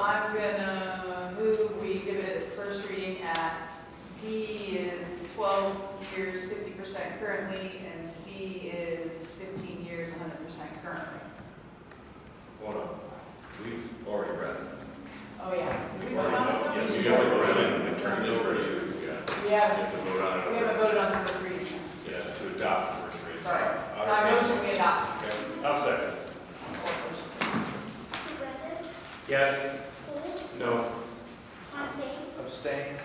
I'm gonna move, we give it its first reading at B is twelve years, fifty percent currently, and C is fifteen years, hundred percent currently. Hold on, we've already read it. Oh, yeah. We've We voted on already- it? Yeah, you gotta go around and and turn it over to you, yeah. We You haven't, have to vote on it we haven't over, voted on the first reading. yeah, to adopt the first reading. Sorry. All My right. motion, we adopt. Okay, I'll second. Surratt, Yes. Golds, No. Fontaine, Abstain.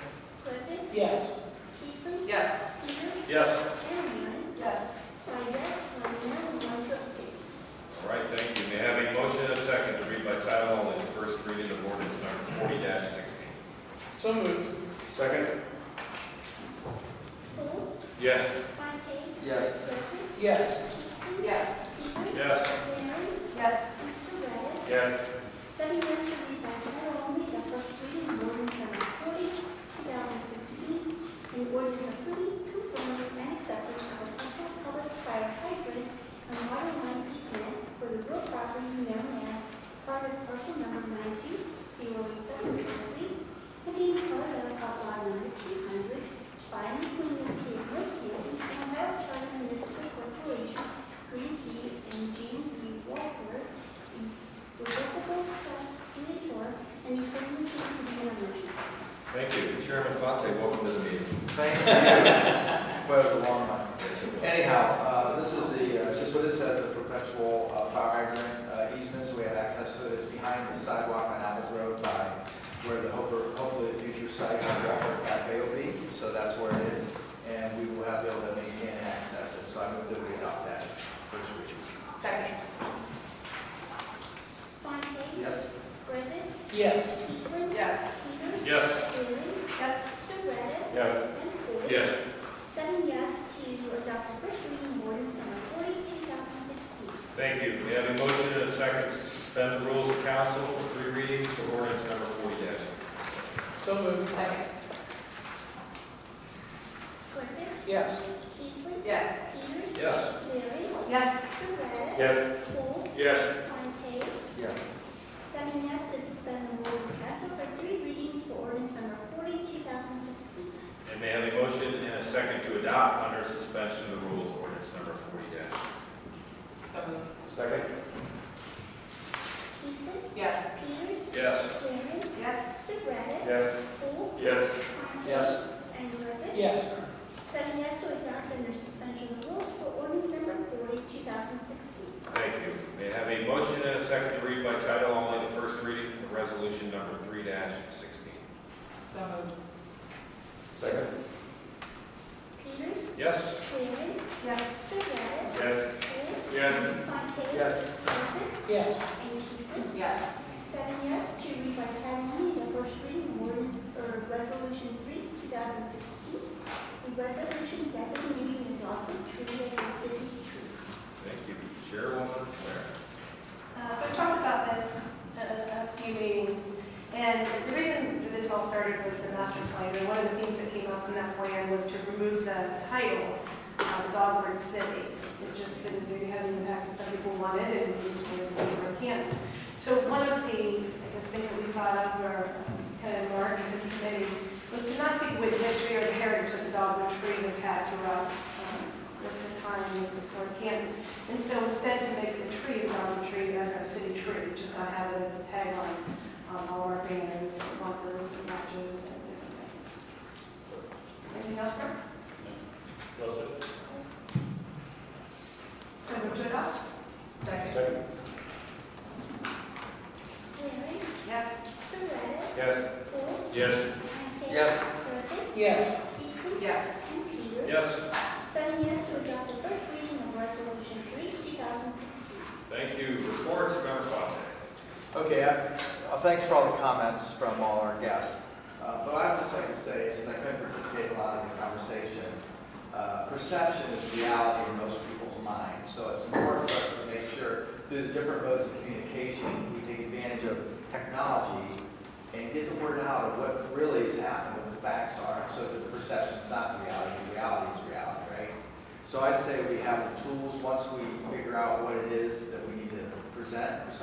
Griffin, Yes. Peasley, Yes. Peters, Yes. and Waring. Yes. By yes, one no, and one abstain. All right, thank you. May I have a motion and a second to read by title only the first reading of ordinance number forty sixteen? So moved. Second. Golds, Yes. Fontaine, Yes. Griffin, Yes. Peasley, Yes. Peters, Yes. Waring, Yes. and Surratt. Yes. Seven yes to read by title only, the first reading of ordinance number forty, two thousand sixteen, and ordinance approving, confirming, and accepting of a potential public fire hydrant and water line easement for the real property known as private parcel number nine two zero eight seven four three, containing part of outlot number two hundred, by and between the city of Brookfield and Ohio Charter Municipal Corporation, Green T and James B. Walker, revocable trust signature and determines the contamination. Thank you. Chairman Fonte, welcome to the meeting. Thank you. But it was a long one. Yes, it was. Anyhow, uh, this is the, uh, just what it says, a perpetual uh, fire hydrant uh, easement, so we have access to it. It's behind the sidewalk on Apple Road by where the hope- hopefully the future site of Rapper Cafe will be. So that's where it is, and we will have, be able to maintain and access it. So I move that we adopt that first reading. Second. Fontaine? Yes? Griffin? Yes. Eastland? Yes. Peters? Yes. Waring? Yes. Surratt? Yes. And Golds? Yes. Seven yes to adopt the first reading of ordinance number forty, two thousand sixteen. Thank you. We have a motion and a second to suspend the rules of council for three readings for ordinance number forty So moved. Second. Griffin? Yes. Eastland? Yes. Peters? Yes. Waring? Yes. Surratt? Yes. Golds? Yes. Fontaine? Yes. Seven yes to suspend the rules of council for three readings for ordinance number forty, two thousand sixteen. And may I have a motion and a second to adopt under suspension of the rules ordinance number forty So moved. Second. Eastland? Yes. Peters? Yes. Waring? Yes. Surratt, Yes. Golds, Yes. Fontaine, Yes. And Griffin. Yes. Seven yes to adopt under suspension of the rules for ordinance number 40, 2016. Thank you. May I have a motion and a second to read by title only the first reading of resolution number three sixteen? So moved. Second. Peters, Yes. Waring, Yes. Surratt, Yes. Golds, Yes. Fontaine, Yes. Griffin, Yes. and Peasley. Yes. Seven yes to read by title only the first reading of ordinance, or resolution 3, 2016, a resolution designating the Rockland tree as the city's tree. Thank you. Chairwoman Claire. Uh, So we talked about this at a- a few meetings, and the reason this all started was the master plan. And one of the things that came up in that plan was to remove the title, uh, Dogwood City. It just didn't really have the impact that some people wanted, and we just wanted to leave our camp. So one of the, I guess, things that we thought of, or kind of marked in this committee, was to not take away the history or the heritage that the Dogwood tree has had throughout um, the time before camp. And so instead to make the tree a garden tree as our city tree, which is not have it as a tagline on all our banners, and markers, and matches, and different things. Anything else, Brooke? So we put it up? Second. Waring, Yes. Surratt, Yes. Golds, Yes. Fontaine, Yes. Griffin, Yes. Peasley, Yes. and Peters. Yes. Seven yes to adopt the first reading of Resolution 3, 2016. Thank you. Reports, Member Fonte. Okay, I- uh, thanks for all the comments from all our guests. Uh, But I would just like to say, since I couldn't participate in a lot of the conversation, uh, perception is reality in most people's minds. So it's important for us to make sure, through the different modes of communication, we take advantage of technology and get the word out of what really is happening, what the facts are, so that the perception's not the reality, the reality is reality, right? So I'd say we have the tools, once we figure out what it is that we need to present or something